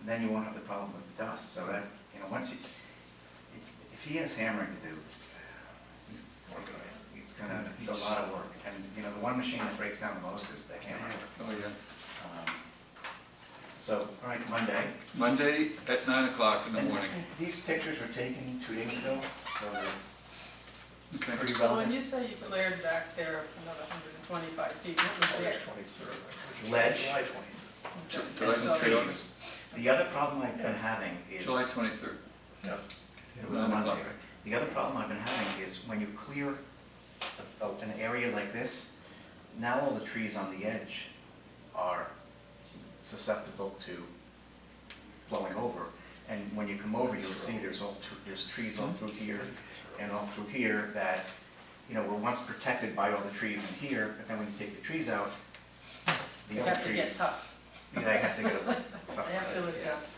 And then you won't have the problem with dust, so that, you know, once you, if- if he has hammering to do, uh, it's gonna, it's a lot of work. And, you know, the one machine that breaks down the most is the hammer. Oh, yeah. Um, So, all right, Monday. Monday at nine o'clock in the And morning. These pictures were taken two days ago, so they're Okay. pretty So when relevant. you say you glared back there another hundred and twenty-five feet, what was there? Ledge. July twenty-third. Ju- Okay, July so- twenty-third. The other problem I've been having is. July twenty-third. It was a Nine Monday, o'clock. right? The other problem I've been having is when you clear a- a- an area like this, now all the trees on the edge are susceptible to blowing over. And when you come over, you'll see there's all, tr- there's trees all through here and all through here that, you know, were once protected by all the trees in here, but then when you take the trees out, They the other have to get trees, tough, they have to get a they have to adjust.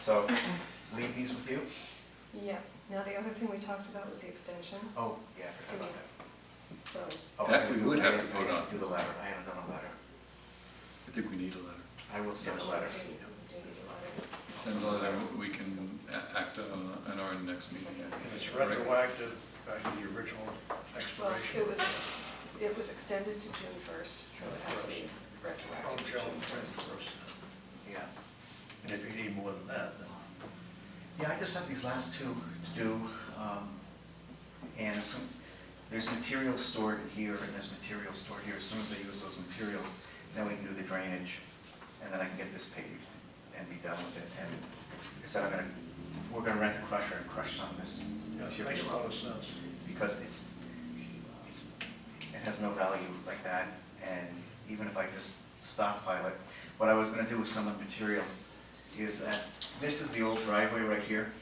So leave these with you. Yeah, now the other thing we talked about was the extension, Oh, yeah, I forgot about that. so, Oh, That I we do- would I have to vote I on. Do the letter, I haven't done a letter. I think we need a letter. I will send a we letter. do need we do need a letter. Send a letter, we can a- act on, on our next meeting. It's retroactive back to the original Well, expiration. it was, it was extended to June first, so it had to be From retroactive to June June first. first. Yeah. And if you need more than that, then. Yeah, I just have these last two to do. um, And some, there's material stored in here and there's material stored here. As soon as I use those materials, then we can do the drainage and then I can get this paved and be done with it. And like I said, I'm gonna, we're gonna rent a crusher and crush some of this yeah, it material. Makes a lot up. of sense. because it's, it's, it has no value like that, and even if I just stockpile it, what I was gonna do with some of the material is that, this is the old driveway right here.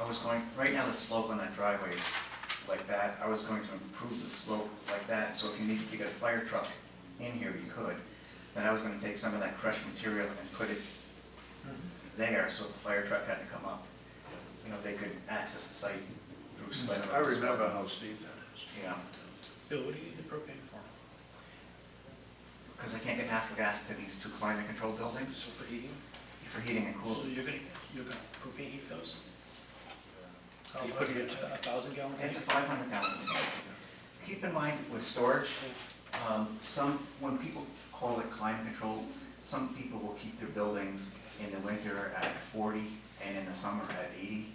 I was going, right now the slope on that driveway is like that, I was going to improve the slope like that, so if you needed to get a fire truck in here, you could. Then I was gonna take some of that crushed material and put it Hmm. there, so if the fire truck had to come up, you know, they could access the site through sled. Mm-hmm. I remember how steep that You know, Bill, what do you need the propane for? because I can't get natural gas to these two climate control buildings So for heating? for heating and So cooling. you're gonna, you're gonna propane heat those? How You put much? it in a thousand gallon tank? It's a five hundred gallon tank. Keep in mind with storage, um, some, when people call it climate control, some people will keep their buildings in the winter at forty and in the summer at eighty.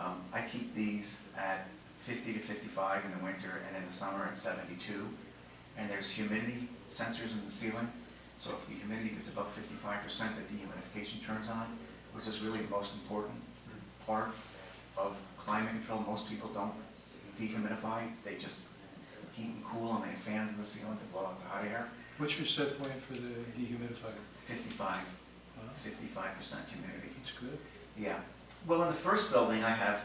Um, I keep these at fifty to fifty-five in the winter and in the summer at seventy-two. And there's humidity sensors in the ceiling, so if the humidity gets above fifty-five percent, the dehumidification turns on, which is really the most important part of climate control. Most people don't dehumidify, they just heat and cool and they have fans in the ceiling to blow out the hot air. What's your set point for the dehumidifier? 55, Wow, 55% humidity. It's good. Yeah. Well, in the first building, I have,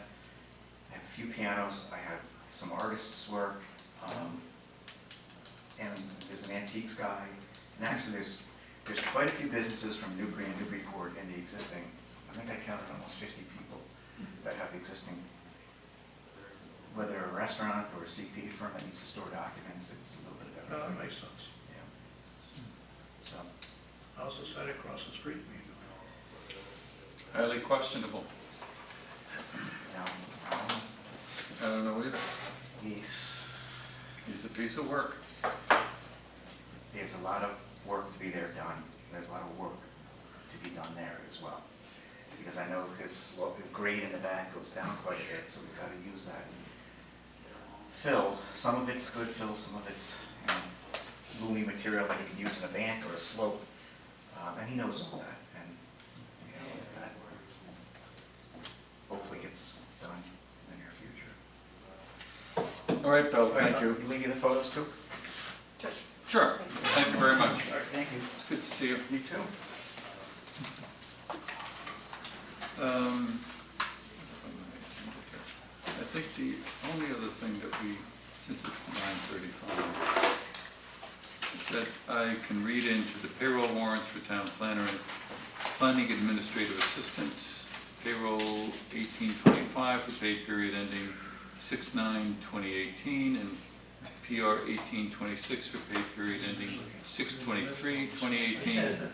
I have a few pianos, I have some artists' work, um, and there's an antiques guy, and actually, there's, there's quite a few businesses from Newbury and Newburyport in the existing, I think I counted almost 50 people that have existing, whether a restaurant or a CP firm that needs to store documents, it's a little bit of No, everything. that makes sense. Yeah. So, How's the site across the street from you? Highly questionable. now, um, I don't know either. he's, It's a piece of work. there's a lot of work to be there done, there's a lot of work to be done there as well. Because I know his, well, the grade in the back goes down quite a bit, so we've got to use that. Fill, some of it's good fill, some of it's, you know, gloomy material that you can use in a bank or a slope, um, and he knows all that, and, you know, that hopefully gets done in the near future. All right, Bill, thank you. Leave you the photos too? Sure, thank you very much. All right, thank you. It's good to see you. You too. Um, I think the only other thing that we, since it's nine thirty-five, is that I can read into the payroll warrants for town planner and planning administrative assistant, payroll eighteen twenty-five for pay period ending six nine twenty eighteen, and PR eighteen twenty-six for pay period ending six twenty-three twenty eighteen.